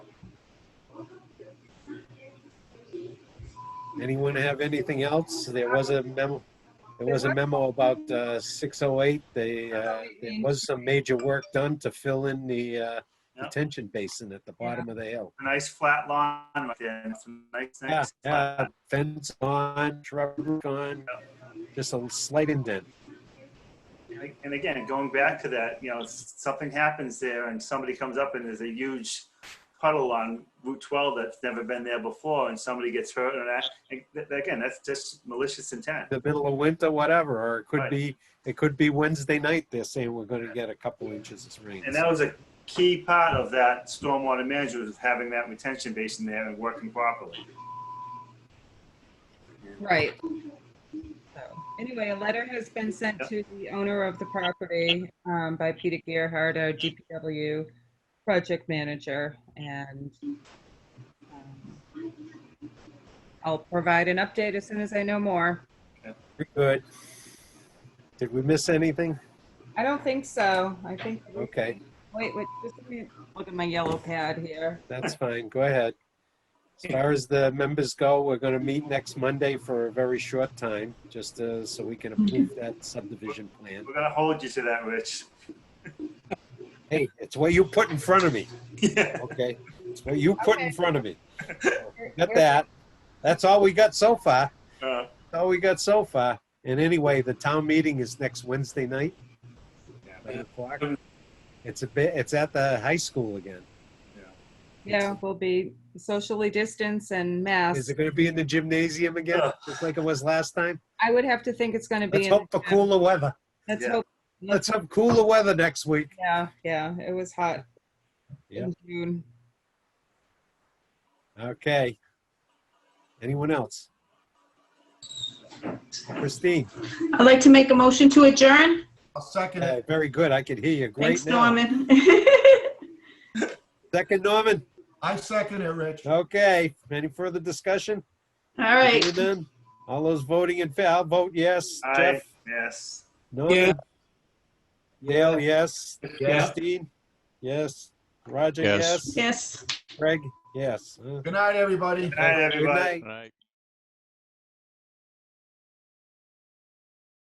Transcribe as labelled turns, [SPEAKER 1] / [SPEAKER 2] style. [SPEAKER 1] Anyone have anything else? There was a memo, there was a memo about uh, 608. They, uh, there was some major work done to fill in the uh,
[SPEAKER 2] Yeah.
[SPEAKER 1] detention basin at the bottom of the hill.
[SPEAKER 2] A nice flat lawn right there. It's a nice,
[SPEAKER 1] Yeah,
[SPEAKER 2] nice.
[SPEAKER 1] yeah,
[SPEAKER 2] flat-
[SPEAKER 1] Ah, fence on, shrub on, just a slight indent.
[SPEAKER 2] And again, going back to that, you know, s- something happens there and somebody comes up and there's a huge puddle on Route 12 that's never been there before and somebody gets hurt and that, and th- again, that's just malicious intent.
[SPEAKER 1] The middle of winter, whatever, or it could
[SPEAKER 2] Right.
[SPEAKER 1] be, it could be Wednesday night. They're saying we're going to get a couple inches of rain.
[SPEAKER 2] And that was a key part of that stormwater management was having that retention basin there and working properly.
[SPEAKER 3] Right. So, Anyway, a letter has been sent to the owner of the property um, by Peter Gerhard, our DPW project manager, and um, I'll provide an update as soon as I know more.
[SPEAKER 1] Very Good. Did we miss anything?
[SPEAKER 3] I don't think so. I think,
[SPEAKER 1] Okay,
[SPEAKER 3] wait, wait, just a minute. Look at my yellow pad here.
[SPEAKER 1] that's fine. Go ahead. As far as the members go, we're going to meet next Monday for a very short time, just uh, so we can
[SPEAKER 3] Mm-hmm.
[SPEAKER 1] approve that subdivision plan.
[SPEAKER 2] We're gonna hold you to that, Rich.
[SPEAKER 1] Hey, it's what you put in front of me,
[SPEAKER 2] Yeah.
[SPEAKER 1] okay? It's what you put in
[SPEAKER 3] Okay.
[SPEAKER 1] front of me. Got that. That's all we got so far.
[SPEAKER 2] Uh,
[SPEAKER 1] That's all we got so far. And anyway, the town meeting is next Wednesday night,
[SPEAKER 2] yeah.
[SPEAKER 1] nine o'clock. It's a bit, it's at the high school again.
[SPEAKER 3] Yeah, we'll be socially distanced and
[SPEAKER 1] Is
[SPEAKER 3] masked.
[SPEAKER 1] it going to be in the gymnasium again, just like it was last time?
[SPEAKER 3] I would have to think it's going to be.
[SPEAKER 1] Let's
[SPEAKER 3] in-
[SPEAKER 1] hope for cooler weather.
[SPEAKER 3] Let's
[SPEAKER 2] Yeah.
[SPEAKER 3] hope,
[SPEAKER 1] Let's have cooler weather next week.
[SPEAKER 3] yeah, yeah, it was hot. in June.
[SPEAKER 1] Okay. Anyone else? Christine,
[SPEAKER 4] I'd like to make a motion to adjourn.
[SPEAKER 5] I'll second it.
[SPEAKER 1] uh, very good. I could hear you. Great
[SPEAKER 4] Thanks,
[SPEAKER 1] now.
[SPEAKER 4] Norman.
[SPEAKER 1] Second, Norman.
[SPEAKER 5] I second it, Rich.
[SPEAKER 1] Okay. Any further discussion?
[SPEAKER 4] All right.
[SPEAKER 1] Hearing none. All those voting in favor, I'll vote yes.
[SPEAKER 2] Aye,
[SPEAKER 1] Jeff?
[SPEAKER 2] yes.
[SPEAKER 1] Norman? Dale, yes. Christine? Yes. Roger,
[SPEAKER 6] Yes.
[SPEAKER 1] yes.
[SPEAKER 4] Yes.
[SPEAKER 1] Craig? Yes. Uh,
[SPEAKER 5] Good night, everybody.
[SPEAKER 2] Good night,
[SPEAKER 1] Good
[SPEAKER 2] everybody.
[SPEAKER 1] night.
[SPEAKER 6] Right.